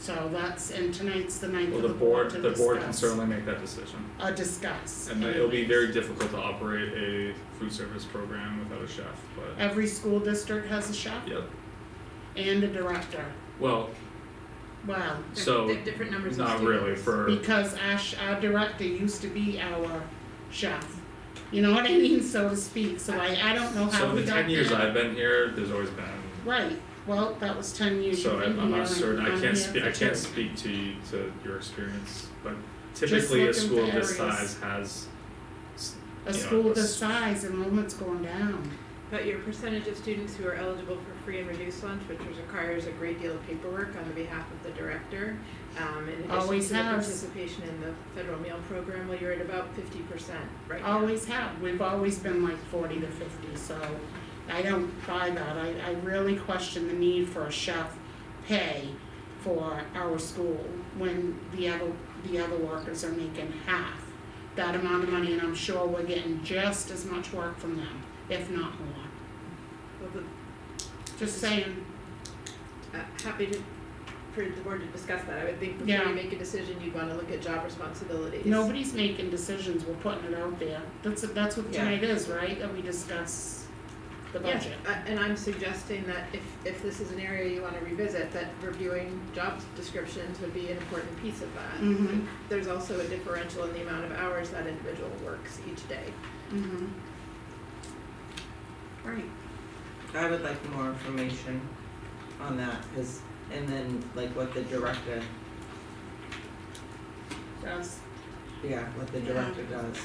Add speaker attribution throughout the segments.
Speaker 1: So that's, and tonight's the ninth
Speaker 2: Well,
Speaker 1: of
Speaker 2: the board,
Speaker 1: to
Speaker 2: the board can
Speaker 1: discuss.
Speaker 2: certainly make that decision.
Speaker 1: Uh, discuss.
Speaker 2: And it'll be very difficult to operate a food service program without a chef, but,
Speaker 1: Every school district has a chef
Speaker 2: yep.
Speaker 1: and a director.
Speaker 2: Well,
Speaker 1: Wow.
Speaker 3: They're-
Speaker 2: So,
Speaker 3: they're different numbers of
Speaker 2: not really
Speaker 3: students.
Speaker 2: for,
Speaker 1: Because our, sh- our director used to be our chef. You know what I mean, so to speak. So I, I don't know how
Speaker 2: so
Speaker 1: we
Speaker 2: the
Speaker 1: got
Speaker 2: ten years
Speaker 1: there.
Speaker 2: I've been here, there's always been,
Speaker 1: Right. Well, that was ten years
Speaker 2: so
Speaker 1: you've
Speaker 2: I'm,
Speaker 1: been
Speaker 2: I'm
Speaker 1: here,
Speaker 2: not
Speaker 1: and
Speaker 2: certain, I
Speaker 1: I'm
Speaker 2: can't
Speaker 1: here
Speaker 2: speak,
Speaker 1: for
Speaker 2: I can't
Speaker 1: two.
Speaker 2: speak to you, to your experience, but typically a
Speaker 1: looking
Speaker 2: school
Speaker 1: for
Speaker 2: this
Speaker 1: areas.
Speaker 2: size has, s-
Speaker 1: A
Speaker 2: you know,
Speaker 1: school
Speaker 2: a
Speaker 1: this
Speaker 2: s-
Speaker 1: size, enrollment's going down.
Speaker 3: But your percentage of students who are eligible for free and reduced lunch, which requires a great deal of paperwork on the behalf of the director, um, in addition
Speaker 1: Always
Speaker 3: to the
Speaker 1: has.
Speaker 3: participation in the federal meal program, well, you're at about fifty percent right now.
Speaker 1: Always have, we've always been like forty to fifty, so I don't buy that, I, I really question the need for a chef pay for our school when the other, the other workers are making half that amount of money, and I'm sure we're getting just as much work from them, if not more.
Speaker 3: Well, the-
Speaker 1: Just saying,
Speaker 3: uh, happy to, for the board to discuss that, I would think before
Speaker 1: Yeah.
Speaker 3: you make a decision, you'd wanna look at job responsibilities.
Speaker 1: nobody's making decisions, we're putting it out there, that's, that's what
Speaker 3: Yeah.
Speaker 1: tonight is, right, that we discuss the
Speaker 3: Yes,
Speaker 1: budget.
Speaker 3: uh, and I'm suggesting that if, if this is an area you wanna revisit, that reviewing job descriptions would be an important piece of that.
Speaker 4: Mm-hmm.
Speaker 1: Mhm.
Speaker 3: There's also a differential in the amount of hours that individual works each day.
Speaker 1: Mm-hmm. Right.
Speaker 5: I would like more information on that, cause, and then like what the director,
Speaker 1: Does.
Speaker 5: yeah, what the
Speaker 3: Yeah.
Speaker 5: director does.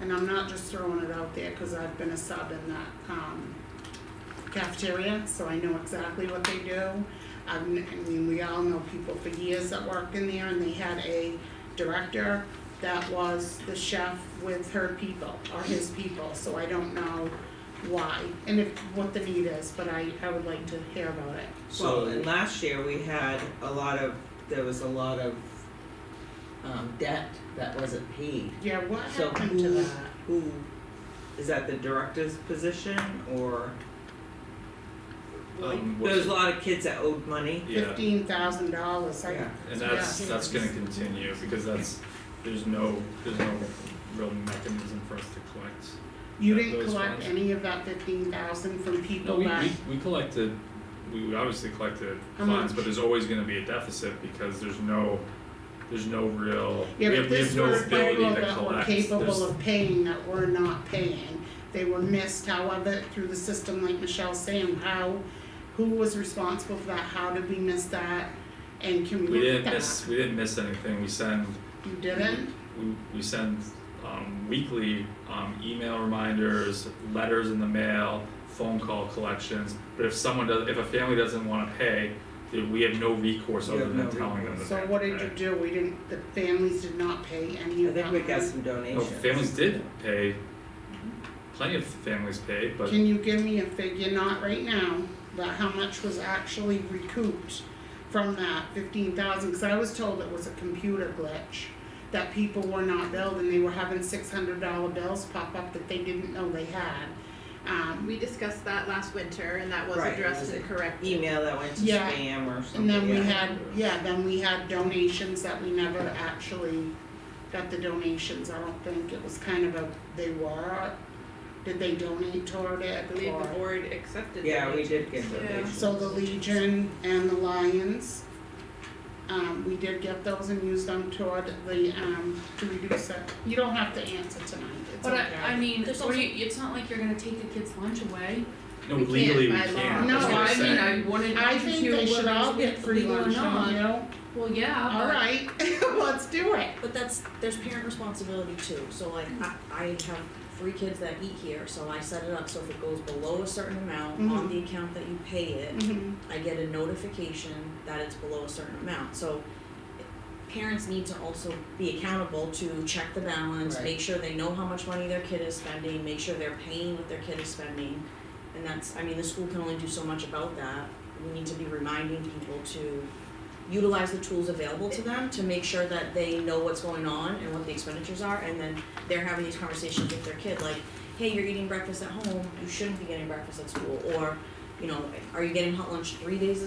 Speaker 1: And I'm not just throwing it out there, cause I've been a sub in that, um, cafeteria, so I know exactly what they do. I've, kn- I mean, we all know people for years that worked in there, and they had a director that was the chef with her people, or his people, so I don't know why, and if, what the need is, but I, I would like to hear about it.
Speaker 5: Well, and last year we had a lot of, there was a lot of um debt that wasn't paid.
Speaker 1: Yeah, what
Speaker 5: So
Speaker 1: happened to
Speaker 5: who,
Speaker 1: that?
Speaker 5: who, is that the director's position or?
Speaker 2: um,
Speaker 5: There
Speaker 2: what's-
Speaker 5: was a lot of kids that owed money.
Speaker 2: yeah,
Speaker 1: Fifteen thousand dollars, I,
Speaker 5: Yeah.
Speaker 2: and that's,
Speaker 1: Yeah.
Speaker 2: that's gonna continue, because that's, there's no, there's no real mechanism for us to collect.
Speaker 1: You
Speaker 2: that-
Speaker 1: didn't
Speaker 2: those
Speaker 1: collect
Speaker 2: funds.
Speaker 1: any of that fifteen thousand from
Speaker 2: No,
Speaker 1: people
Speaker 2: we,
Speaker 1: that,
Speaker 2: we, we collected, we we obviously collected
Speaker 1: How
Speaker 2: funds,
Speaker 1: much?
Speaker 2: but there's always gonna be a deficit because there's no, there's no real, we
Speaker 1: yeah,
Speaker 2: have,
Speaker 1: but
Speaker 2: we have
Speaker 1: this
Speaker 2: no
Speaker 1: was
Speaker 2: ability
Speaker 1: people
Speaker 2: to
Speaker 1: that were
Speaker 2: collect,
Speaker 1: capable
Speaker 2: there's,
Speaker 1: of paying that were not paying. They were missed, however, through the system, like Michelle's saying, how, who was responsible for that, how did we miss that? And can
Speaker 2: we
Speaker 1: we look at
Speaker 2: didn't
Speaker 1: that?
Speaker 2: miss, we didn't miss anything, we send,
Speaker 1: You didn't?
Speaker 2: we, we send, um, weekly, um, email reminders, letters in the mail, phone call collections, but if someone does, if a family doesn't wanna pay, then we have no recourse
Speaker 5: You
Speaker 2: other
Speaker 5: have
Speaker 2: than
Speaker 5: no
Speaker 2: telling them that
Speaker 5: recourse.
Speaker 2: they
Speaker 1: So
Speaker 2: have
Speaker 1: what
Speaker 2: to
Speaker 1: did you
Speaker 2: pay.
Speaker 1: do? We didn't, the families did not pay any
Speaker 5: I
Speaker 1: of that
Speaker 5: think we got
Speaker 1: money?
Speaker 5: some
Speaker 2: No,
Speaker 5: donations.
Speaker 2: Oh, families did pay, plenty of families paid, but
Speaker 1: Can you give me a figure, not right now, but how much was actually recouped from that fifteen thousand? Cause I was told it was a computer glitch, that people were not billed and they were having six hundred dollar bills pop up that they didn't know they had. Um,
Speaker 3: We discussed that last winter and that was
Speaker 5: Right,
Speaker 3: addressed
Speaker 5: was
Speaker 3: and
Speaker 5: it
Speaker 3: corrected.
Speaker 5: Email that went to
Speaker 1: Yeah.
Speaker 5: spam or something,
Speaker 1: and then we
Speaker 5: yeah.
Speaker 1: had, yeah, then we had donations that we never actually got the donations, I don't think, it was kind of a, they were, did they donate toward it
Speaker 3: I believe
Speaker 1: or-
Speaker 3: the board accepted
Speaker 5: Yeah,
Speaker 3: that.
Speaker 5: we did get
Speaker 3: Yeah.
Speaker 5: donations.
Speaker 1: So the Legion and the Lions, um, we did get those and used them toward the, um, to reduce it. You don't have to answer tonight, it's
Speaker 4: But
Speaker 1: okay.
Speaker 4: I, I mean,
Speaker 6: There's
Speaker 4: were you, it's not like you're gonna take the kid's lunch away.
Speaker 2: no,
Speaker 3: We can't
Speaker 2: legally we
Speaker 3: by law.
Speaker 2: can't,
Speaker 1: No,
Speaker 2: that's what I'm
Speaker 4: I mean,
Speaker 2: saying.
Speaker 4: I wanted
Speaker 1: I
Speaker 4: to
Speaker 1: think
Speaker 4: hear
Speaker 1: they should
Speaker 4: whether
Speaker 1: all
Speaker 4: it's
Speaker 1: get free
Speaker 4: legal or
Speaker 1: lunch, don't
Speaker 4: not.
Speaker 1: you?
Speaker 4: Well, yeah, but-
Speaker 1: Alright, let's do it.
Speaker 6: But that's, there's parent responsibility too, so like, I, I have three kids that eat here, so I set it up, so if it goes below a certain amount on
Speaker 1: Mhm.
Speaker 6: the account that you pay it,
Speaker 4: Mm-hmm.
Speaker 1: Mhm.
Speaker 6: I get a notification that it's below a certain amount, so parents need to also be accountable to check the balance,
Speaker 5: Right.
Speaker 6: make sure they know how much money their kid is spending, make sure they're paying what their kid is spending. And that's, I mean, the school can only do so much about that, we need to be reminding people to utilize the tools available to them to make sure that they know what's going on and what the expenditures are, and then they're having these conversations with their kid, like, hey, you're eating breakfast at home, you shouldn't be getting breakfast at school, or you know, are you getting hot lunch three days a